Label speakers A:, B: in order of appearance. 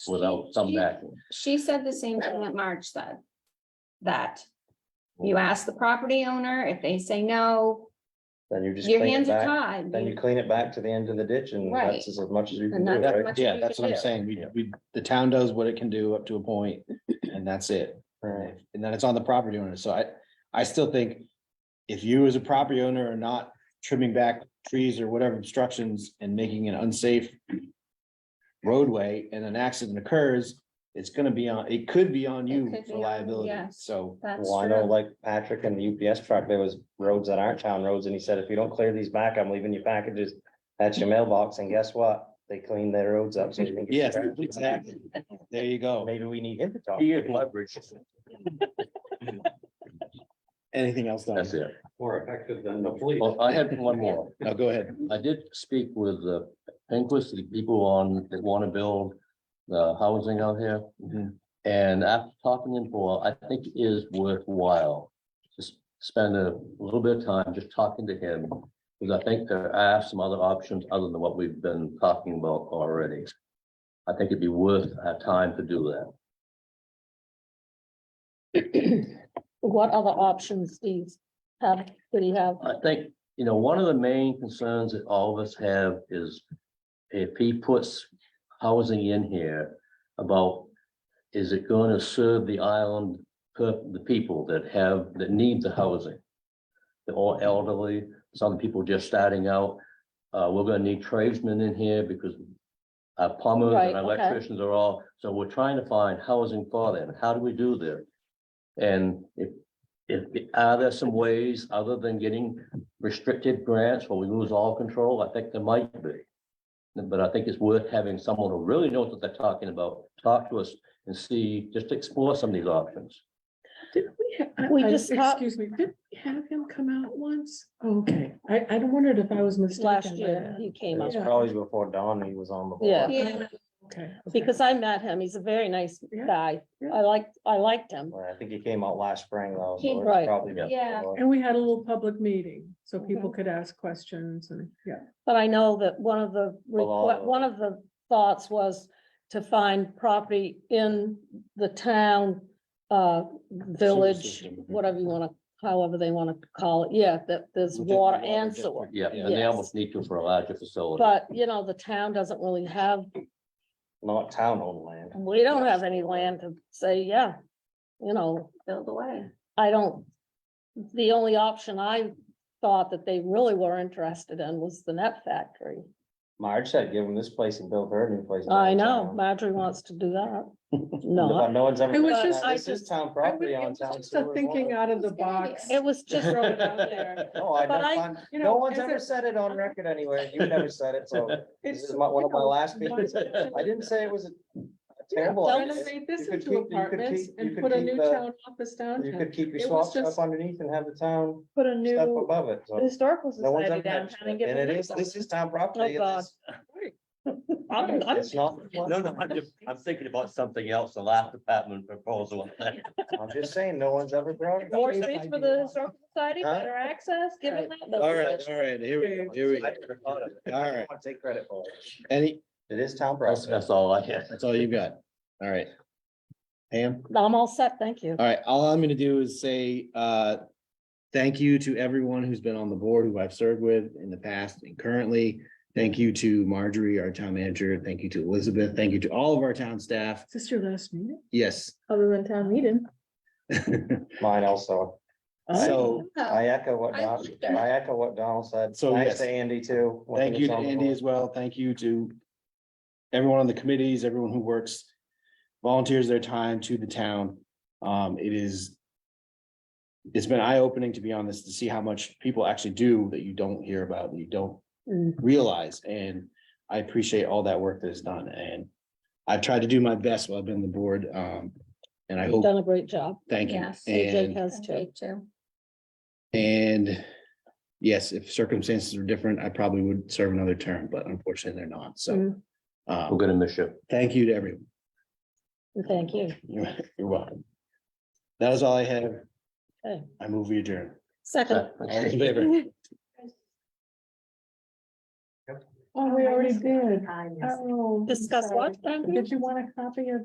A: without some back.
B: She said the same thing that Marge said. That you ask the property owner, if they say no,
C: Then you just
B: your
C: clean it
B: hands are
C: back,
B: tied.
C: then you clean it back to the end of the ditch and
B: Right.
C: that's as much as you can
B: And
C: do,
B: that's as
C: right?
B: much as
D: Yeah,
B: we
D: that's
B: can
D: what I'm
B: do.
D: saying. We, we, the town does what it can do up to a point and that's it.
C: Right.
D: And then it's on the property owner. So I, I still think if you as a property owner are not trimming back trees or whatever obstructions and making an unsafe roadway and an accident occurs, it's gonna be on, it could be on
B: It
D: you
B: could be
D: for
B: on-
D: liability.
B: yes.
D: So
B: That's
C: Well, I know
B: true.
C: like Patrick and the UPS truck, there was roads that aren't town roads and he said, if you don't clear these back, I'm leaving your packages. That's your mailbox and guess what? They clean their roads up. so you can get
D: Yes,
C: your trash.
D: exactly. there you go.
C: Maybe we need him to talk.
A: He is leverage.
D: Anything else? Don?
A: That's it.
C: More effective than the police.
A: Well, I had one more.
D: No, go ahead.
A: I did speak with the Pinquist, the people on, that want to build the housing out here.
D: Mhm.
A: And after talking to them for, I think it is worthwhile to s- spend a little bit of time just talking to him. Because I think there are some other options other than what we've been talking about already. I think it'd be worth our time to do that.
E: What other options do you have, do you have?
A: I think, you know, one of the main concerns that all of us have is if he puts housing in here about, is it going to serve the island, per- the people that have, that need the housing? They're all elderly, some people just starting out. Uh, we're going to need tradesmen in here because our plumbers
E: Right,
A: and
E: okay.
A: electricians are all, so we're trying to find housing for them. How do we do that? And if if, are there some ways other than getting restricted grants where we lose all control? I think there might be. But I think it's worth having someone who really knows what they're talking about, talk to us and see, just explore some of these options.
F: Did we? ha- I-
E: We
F: I-
E: just
F: Uh,
E: ha-
F: Excuse me, did we have him come out once? Okay, I, I wondered if I was mistaken.
E: Last
F: by
E: year
F: that.
E: he
C: It
E: came up,
C: was probably before dawn he was on the. board.
E: Yeah.
B: Yeah,
F: Okay. okay.
E: because I met him, he's a very nice
F: Yeah,
E: guy,
F: yeah.
E: I liked, I liked him.
C: Well, I think he came out last spring though. so
B: He-
C: it's
E: Right.
C: probably
A: Yeah.
B: Yeah.
C: before.
F: And we had a little public meeting, so people could ask questions and, yeah.
E: But I know that one of the, requ-
D: uh,
C: Well,
E: one of the thoughts was to find property in the town, uh, village,
D: system, mhm.
E: whatever you wanna, however they wanna call it, yeah, that there's
D: Within the
E: water
D: water
E: and
D: district.
E: sewer.
A: Yeah, and they
E: Yes.
A: almost need to for a larger facility.
E: But, you know, the town doesn't really have,
C: Not town owned land.
E: we don't have any land to say, yeah, you know,
B: Build away.
E: I don't, the only option I thought that they really were interested in was the net factory.
C: Marge said, give him this place and build her a new place.
E: I know,
C: downtown."
E: Marjorie wants to do that.
C: No,
E: No,
C: no one's ever.
F: I was
C: done
F: just-
C: that.
E: I
C: This is
E: just-
C: town
F: I
C: property on
F: was
C: town.
F: just a
C: sewer,
F: Thinking
C: water.
F: out of the
B: It's gonna be
F: box.
E: it was just thrown out there.
C: No, I
E: But I-
C: never,
F: you
C: no
F: know,
C: one's
F: as
C: ever
F: a-
C: said it on record anywhere. You've never said it, so this
F: It's
C: is my- one of my
F: you know,
C: last meetings.
F: but-
C: I didn't say it was a a
F: Yeah,
C: terrible. idea.
F: Renovate this
C: You could keep-
F: into
C: you could
F: apartments
C: keep- you
F: and
C: could
F: put a
C: keep
F: new
C: the-
F: town office
C: You
F: downtown.
C: could keep your
F: It was
C: swamp stuff
F: just-
C: underneath and have the town
E: Put a
C: stuff above it, so.
E: historical
C: No one's ever mentioned it. And it is, this is town property.
E: Oh,
C: It's- It's not,
A: No, no, I'm just, I'm thinking about something else, the last department proposal.
C: I'm just saying, no one's ever brought it. up.
E: More space for the historical society,
C: Huh?
E: better access, give it that.
D: All right, all right, here we go, here we
C: I
D: go.
C: never thought of it.
D: All
C: I
D: right,
C: don't want to take credit for it.
D: any,
C: It is town
A: That's,
C: property.
A: that's all I have.
D: That's all you got. All right. Pam,
E: I'm all set, thank you.
D: all right, all I'm gonna do is say, uh, thank you to everyone who's been on the board, who I've served with in the past and currently. Thank you to Marjorie, our town manager. Thank you to Elizabeth. Thank you to all of our town staff.
F: Is this your last meeting?
D: Yes.
F: Other than town meeting.
C: Mine also.
D: So
B: Oh,
C: I echo what
B: I
C: Don,
B: like that.
C: I echo what Donald said.
D: So,
C: Thanks
D: yes.
C: to Andy too. when he
D: Thank
C: was
D: you to
C: on the
D: Andy
C: board.
D: as well. Thank you to everyone on the committees, everyone who works, volunteers their time to the town. Um, it is it's been eye-opening to be on this, to see how much people actually do that you don't hear about, that you don't
E: Mm.
D: realize. And I appreciate all that work that is done and I've tried to do my best while I've been on the board. Um, and I
E: You've
D: hope,
E: done a great job.
D: thank you.
B: Yes.
E: AJ
D: And
E: has too.
B: Me too.
D: and yes, if circumstances were different, I probably would serve another term, but unfortunately they're not, so.
E: Mm.
A: We're
D: Um,
A: gonna miss you.
D: thank you to everyone.
E: Thank you.
D: You're you're welcome. That was all I have.
E: Okay.
D: I move we
C: Uh,
D: adjourn.
E: Second.
D: All in favor?
F: Oh, we already did.
G: I
F: Oh, I'm
E: Discuss
F: sorry.
E: what, Andrew?
F: Oh, Did you want a copy of